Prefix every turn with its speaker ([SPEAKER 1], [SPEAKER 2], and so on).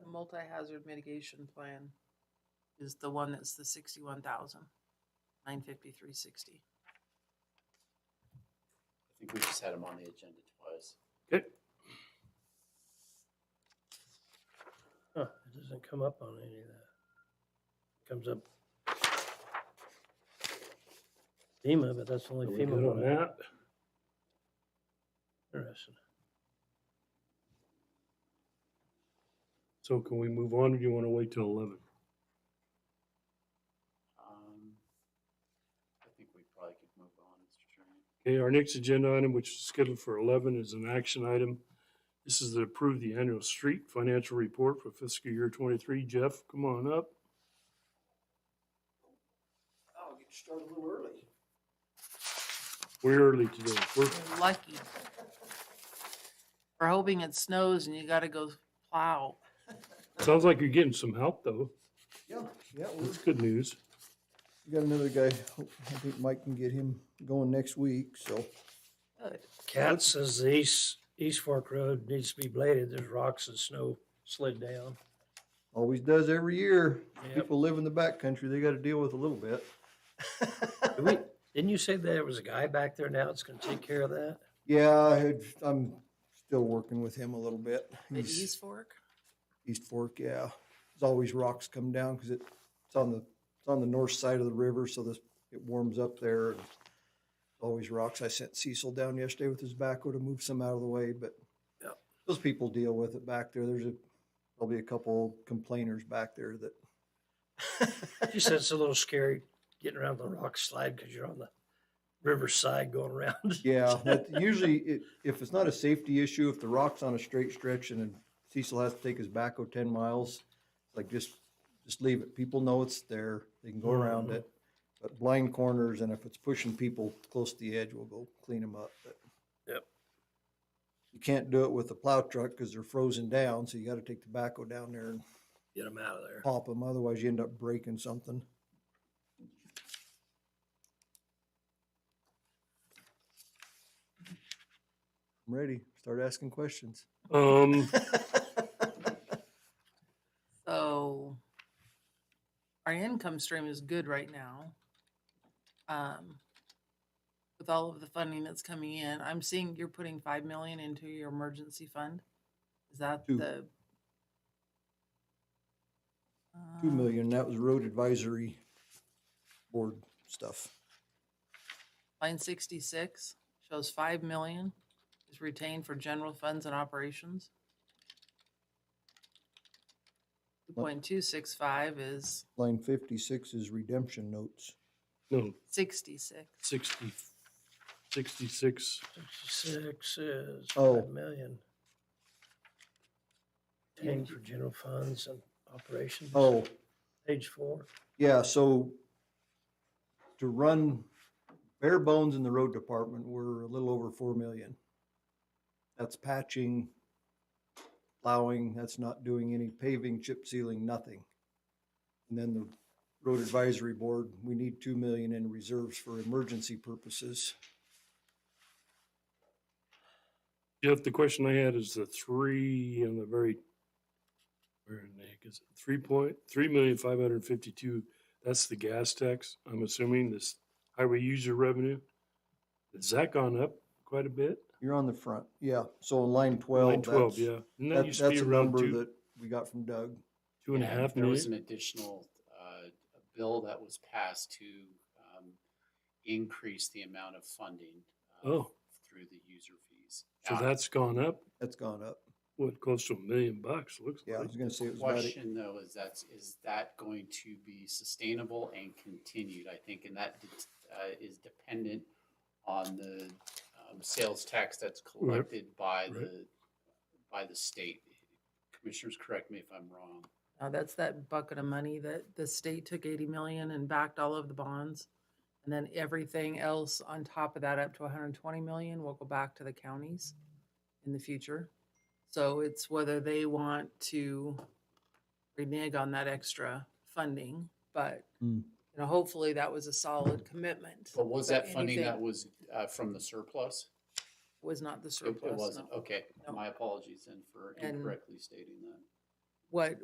[SPEAKER 1] multi-hazard mitigation plan is the one that's the sixty-one thousand, nine fifty-three sixty.
[SPEAKER 2] I think we just had him on the agenda twice.
[SPEAKER 3] Huh, it doesn't come up on any of that. Comes up. FEMA, but that's the only
[SPEAKER 4] Are we
[SPEAKER 3] FEMA
[SPEAKER 4] good on
[SPEAKER 3] one.
[SPEAKER 4] that?
[SPEAKER 3] Interesting.
[SPEAKER 4] So can we move on, or do you wanna wait till eleven?
[SPEAKER 2] Um, I think we probably could move on, Mr. Chairman.
[SPEAKER 4] Okay, our next agenda item, which is scheduled for eleven, is an action item. This is to approve the annual street financial report for fiscal year twenty-three. Jeff, come on up.
[SPEAKER 5] I'll Oh, get started a little early.
[SPEAKER 4] We're early today. We're,
[SPEAKER 1] You're lucky. We're hoping it snows and you gotta go plow.
[SPEAKER 4] sounds like you're getting some help, though.
[SPEAKER 5] Yeah, yeah, we
[SPEAKER 4] That's good news.
[SPEAKER 5] we got another guy. Hope- I think Mike can get him going next week, so.
[SPEAKER 1] Good.
[SPEAKER 3] Cat says the East, East Fork Road needs to be bladed. There's rocks and snow slid down.
[SPEAKER 5] Always does every year.
[SPEAKER 3] Yep.
[SPEAKER 5] People live in the backcountry, they gotta deal with a little bit.
[SPEAKER 3] Did we- Didn't you say there was a guy back there now that's gonna take care of that?
[SPEAKER 5] Yeah, I had, I'm still working with him a little bit.
[SPEAKER 1] At
[SPEAKER 5] He's-
[SPEAKER 1] East Fork?
[SPEAKER 5] East Fork, yeah. There's always rocks come down because it, it's on the, it's on the north side of the river, so this, it warms up there. and Always rocks. I sent Cecil down yesterday with his backhoe to move some out of the way, but
[SPEAKER 3] Yep.
[SPEAKER 5] those people deal with it back there. There's a, probably a couple complainers back there that,
[SPEAKER 3] You said it's a little scary getting around the rock slide because you're on the riverside going around.
[SPEAKER 5] yeah, but usually it, if it's not a safety issue, if the rock's on a straight stretch and then Cecil has to take his backhoe ten miles, like just, just leave it. People know it's there. They can go around
[SPEAKER 3] Mhm.
[SPEAKER 5] it. But blind corners and if it's pushing people close to the edge, we'll go clean them up, but.
[SPEAKER 3] Yep.
[SPEAKER 5] You can't do it with a plow truck because they're frozen down, so you gotta take the backhoe down there and
[SPEAKER 3] Get them out of there.
[SPEAKER 5] pop them, otherwise you end up breaking something. I'm ready. Start asking questions.
[SPEAKER 4] Um,
[SPEAKER 1] So our income stream is good right now. Um, with all of the funding that's coming in, I'm seeing you're putting five million into your emergency fund. Is that
[SPEAKER 5] Two.
[SPEAKER 1] the?
[SPEAKER 5] Two
[SPEAKER 1] Uh,
[SPEAKER 5] million, that was road advisory board stuff.
[SPEAKER 1] Line sixty-six shows five million is retained for general funds and operations. Two
[SPEAKER 5] What?
[SPEAKER 1] point two six five is
[SPEAKER 5] Line fifty-six is redemption notes.
[SPEAKER 4] no,
[SPEAKER 1] sixty-six.
[SPEAKER 4] sixty, sixty-six.
[SPEAKER 3] Six is
[SPEAKER 5] Oh.
[SPEAKER 3] five million. Ten for general funds and operations,
[SPEAKER 5] Oh,
[SPEAKER 3] page four.
[SPEAKER 5] yeah, so to run bare bones in the road department, we're a little over four million. That's patching, plowing, that's not doing any paving, chip sealing, nothing. And then the road advisory board, we need two million in reserves for emergency purposes.
[SPEAKER 4] Jeff, the question I had is the three on the very, where in the heck is it? Three point, three million five hundred and fifty-two, that's the gas tax, I'm assuming, this highway user revenue. Has that gone up quite a bit?
[SPEAKER 5] You're on the front, yeah, so on line
[SPEAKER 4] Line
[SPEAKER 5] twelve,
[SPEAKER 4] twelve,
[SPEAKER 5] that's,
[SPEAKER 4] yeah. And that
[SPEAKER 5] that-
[SPEAKER 4] used to be
[SPEAKER 5] that's a
[SPEAKER 4] around
[SPEAKER 5] number
[SPEAKER 4] two,
[SPEAKER 5] that we got from Doug.
[SPEAKER 4] two and a
[SPEAKER 2] And
[SPEAKER 4] half
[SPEAKER 2] There was
[SPEAKER 4] million.
[SPEAKER 2] an additional, uh, a bill that was passed to, um, increase the amount of funding. uh,
[SPEAKER 4] Oh.
[SPEAKER 2] Through the user fees.
[SPEAKER 4] So
[SPEAKER 2] Now,
[SPEAKER 4] that's gone up,
[SPEAKER 5] That's gone up.
[SPEAKER 4] what, close to a million bucks, looks
[SPEAKER 5] Yeah, I
[SPEAKER 4] like.
[SPEAKER 5] was gonna say it was about eight.
[SPEAKER 2] Question though, is that's, is that going to be sustainable and continued? I think, and that, uh, is dependent on the, um, sales tax that's collected by
[SPEAKER 4] right.
[SPEAKER 2] the, by the state. Commissioners, correct me if I'm wrong.
[SPEAKER 1] Uh, that's that bucket of money that the state took eighty million and backed all of the bonds. And then everything else on top of that, up to hundred and twenty million, will go back to the counties in the future. So it's whether they want to renege on that extra funding, but,
[SPEAKER 5] Hmm.
[SPEAKER 1] you know, hopefully that was a solid commitment.
[SPEAKER 2] But was
[SPEAKER 1] But
[SPEAKER 2] that funding
[SPEAKER 1] anything-
[SPEAKER 2] that was, uh, from the surplus?
[SPEAKER 1] Was not the
[SPEAKER 2] It- It
[SPEAKER 1] surplus,
[SPEAKER 2] wasn't,
[SPEAKER 1] no.
[SPEAKER 2] okay.
[SPEAKER 1] No.
[SPEAKER 2] My apologies then for
[SPEAKER 1] And-
[SPEAKER 2] incorrectly stating that.
[SPEAKER 1] What